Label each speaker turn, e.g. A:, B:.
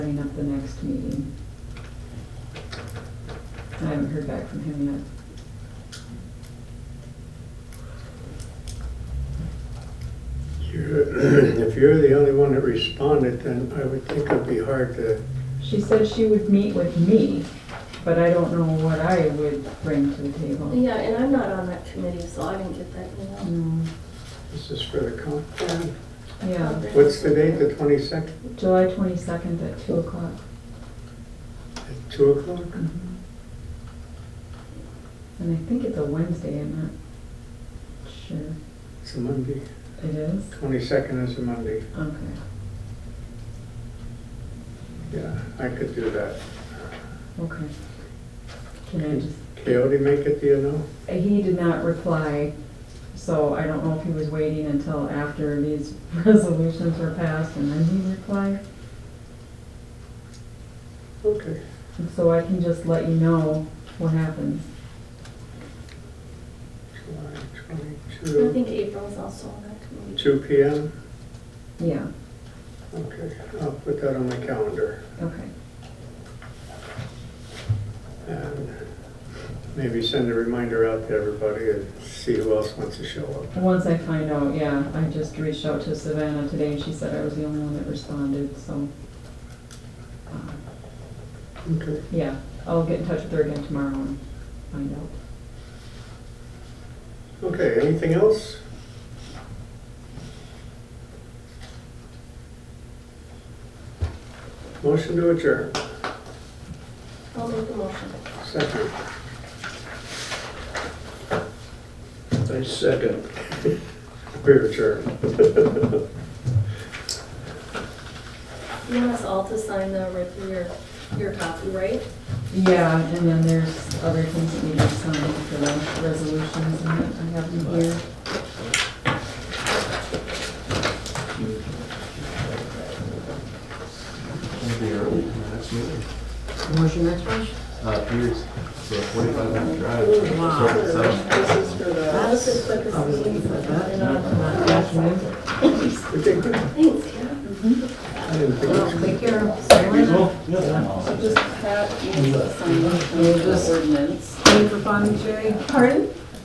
A: at the next meeting. I haven't heard back from him yet.
B: You're- If you're the only one that responded, then I would think it'd be hard to,
A: She said she would meet with me, but I don't know what I would bring to the table.
C: Yeah, and I'm not on that committee, so I didn't get that email.
A: No,
B: this is for the comp plan.
A: Mm,
C: Um,
A: Yeah,
B: What's the date, the twenty-second,
A: July twenty-second at two o'clock.
B: at two o'clock?
A: And I think it's a Wednesday, I'm not sure.
B: It's a Monday,
A: It is?
B: twenty-second is a Monday,
A: Okay,
B: yeah, I could do that.
A: okay. Can I just,
B: Coyote make it, do you know?
A: he did not reply, so I don't know if he was waiting until after these resolutions were passed and then he replied.
B: Okay,
A: And So I can just let you know what happens.
B: July
C: I
B: twenty-two,
C: think April's also on that committee.
B: two P M,
A: Yeah,
B: okay, I'll put that on my calendar.
A: okay.
B: And maybe send a reminder out to everybody and see who else wants to show up.
A: Once I find out, yeah, I just reached out to Savannah today and she said I was the only one that responded, so. uh,
B: Okay,
A: Yeah, I'll get in touch with her again tomorrow and find out.
B: okay, anything else? Motion to adjourn,
C: I'll make the motion.
B: second.
D: I second.
B: We're adjourned.
C: You want us all to sign the, right for your, your copy, right?
A: Yeah, and then there's other things that need to be signed for the resolutions and that I have them here.
E: It'll be early, for the next meeting.
F: Where's your next one?
E: Uh, Pierce, so forty-five minute drive. Start at seven.
C: That's as quick as we can. And, uh,
B: We did good.
C: Thanks, yeah.
B: I didn't think it was
F: Take care.
G: So just have you sign the
F: just-
G: ordinance.
F: Pay for fun, Jerry.
G: Pardon?